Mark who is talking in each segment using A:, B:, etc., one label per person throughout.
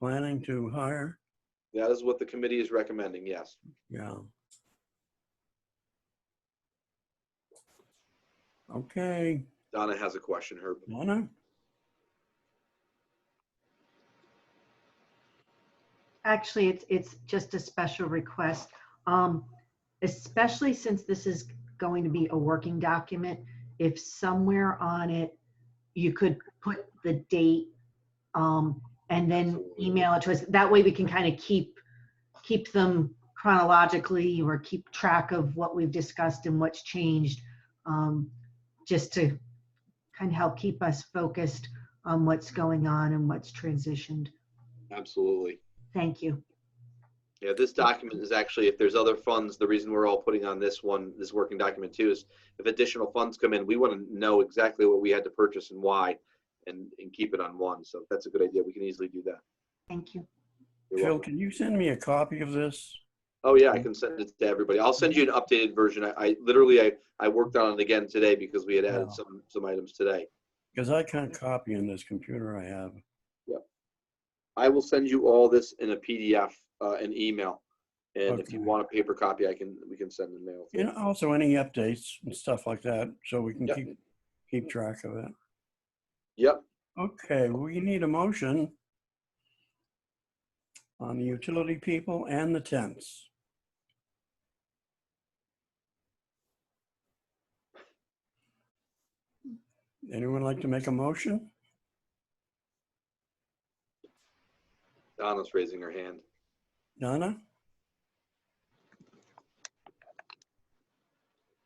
A: planning to hire?
B: That is what the committee is recommending, yes.
A: Yeah. Okay,
B: Donna has a question, Herb.
A: Donna?
C: Actually, it's, it's just a special request, um, especially since this is going to be a working document. If somewhere on it, you could put the date, um, and then
B: Absolutely.
C: email it to us. That way we can kind of keep, keep them chronologically or keep track of what we've discussed and what's changed. Um, just to kind of help keep us focused on what's going on and what's transitioned.
B: Absolutely.
C: Thank you.
B: Yeah, this document is actually, if there's other funds, the reason we're all putting on this one, this working document too, is if additional funds come in, we want to know exactly what we had to purchase and why and, and keep it on one. So that's a good idea. We can easily do that.
C: Thank you.
B: You're
A: Phil,
B: welcome.
A: can you send me a copy of this?
B: Oh yeah, I can send it to everybody. I'll send you an updated version. I, I literally, I, I worked on it again today because we had
A: Yeah.
B: added some, some items today.
A: Because I can't copy on this computer I have.
B: I will send you all this in a PDF, uh, an email. And if you
A: Okay.
B: want a paper copy, I can, we can send in mail.
A: And also any updates and stuff like that, so we can
B: Yep.
A: keep, keep track of it.
B: Yep,
A: Okay, we need a motion on the utility people and the tents. Anyone like to make a motion?
B: Donna's raising her hand.
A: Donna?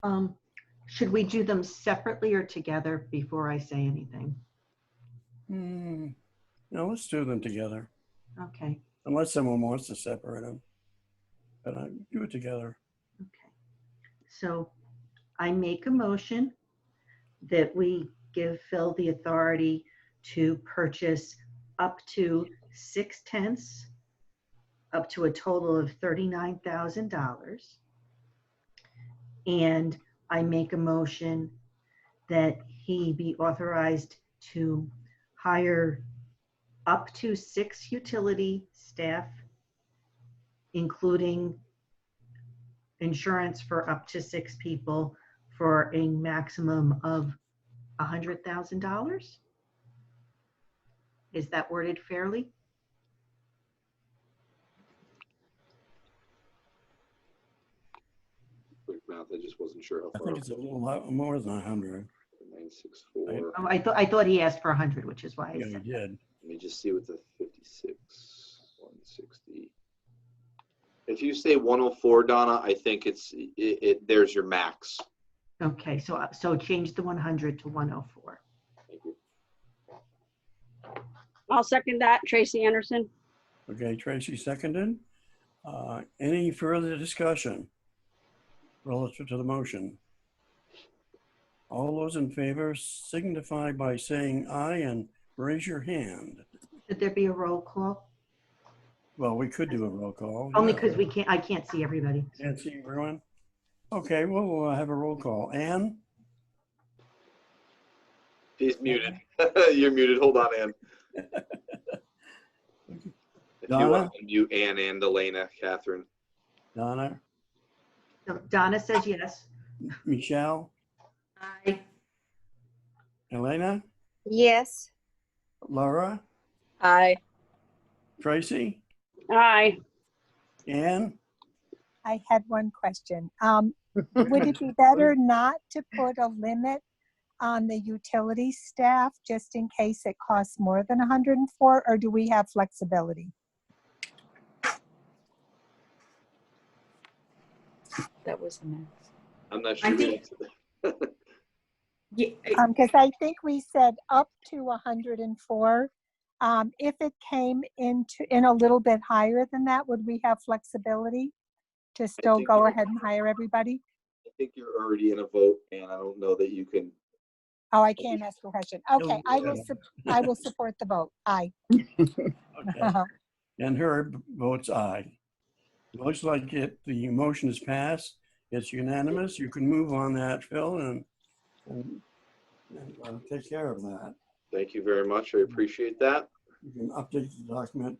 C: Um, should we do them separately or together before I say anything?
A: Hmm, no, let's do them together,
C: Okay,
A: unless someone wants to separate them. But I do it together.
C: okay. So I make a motion that we give Phil the authority to purchase up to six tents, up to a total of thirty-nine thousand dollars. And I make a motion that he be authorized to hire up to six utility staff, including insurance for up to six people for a maximum of $100,000? Is that worded fairly?
B: Quick math, I just wasn't sure how
A: I
B: far.
A: think it's a little lot more than a hundred.
B: Nine, six, four.
C: Oh, I thought, I thought he asked for 100, which is why I
A: Yeah, we
C: said,
A: did.
B: Let me just see what the fifty-six, one sixty. If you say one oh four, Donna, I think it's, it, it, there's your max.
C: okay, so, so change the 100 to 104.
B: Thank you.
D: I'll second that. Tracy Anderson.
A: Okay, Tracy seconded. Uh, Any further discussion relative to the motion? All those in favor signify by saying aye and raise your hand.
C: Should there be a roll call?
A: Well, we could do a roll call.
C: Only
A: yeah.
C: because we can't, I can't see everybody.
A: Can't see everyone. Okay, we'll uh, have a roll call. Ann?
B: He's muted. You're muted. Hold on, Ann. If you
A: Donna?
B: want to mute Ann and Elena, Catherine.
A: Donna?
C: So Donna says yes.
A: Michelle?
C: Aye.
A: Elena?
E: Yes,
A: Laura?
F: Aye.
A: Tracy?
D: Aye.
A: Ann?
E: I had one question. Um, would it be better not to put a limit on the utility staff just in case it costs more than hundred and four, or do we have flexibility?
F: That was the max.
B: I'm not
C: I
B: sure.
C: think-
F: Yeah, I-
E: Um, cause I think we said up to hundred and four. Um, if it came into, in a little bit higher than that, would we have flexibility to still
B: think
E: go
B: we-
E: ahead and hire everybody?
B: I think you're already in a vote, and I don't know that you can.
E: Oh, I can't ask the question. Okay, I
A: yeah.
E: will, sup- I will support the vote. Aye. Uh-huh.
A: Okay. And Herb votes aye. Looks like it, the motion is passed. It's unanimous. You can move on that, Phil, and, and, and uh, take care of that.
B: Thank you very much. I appreciate that.
A: You can update the document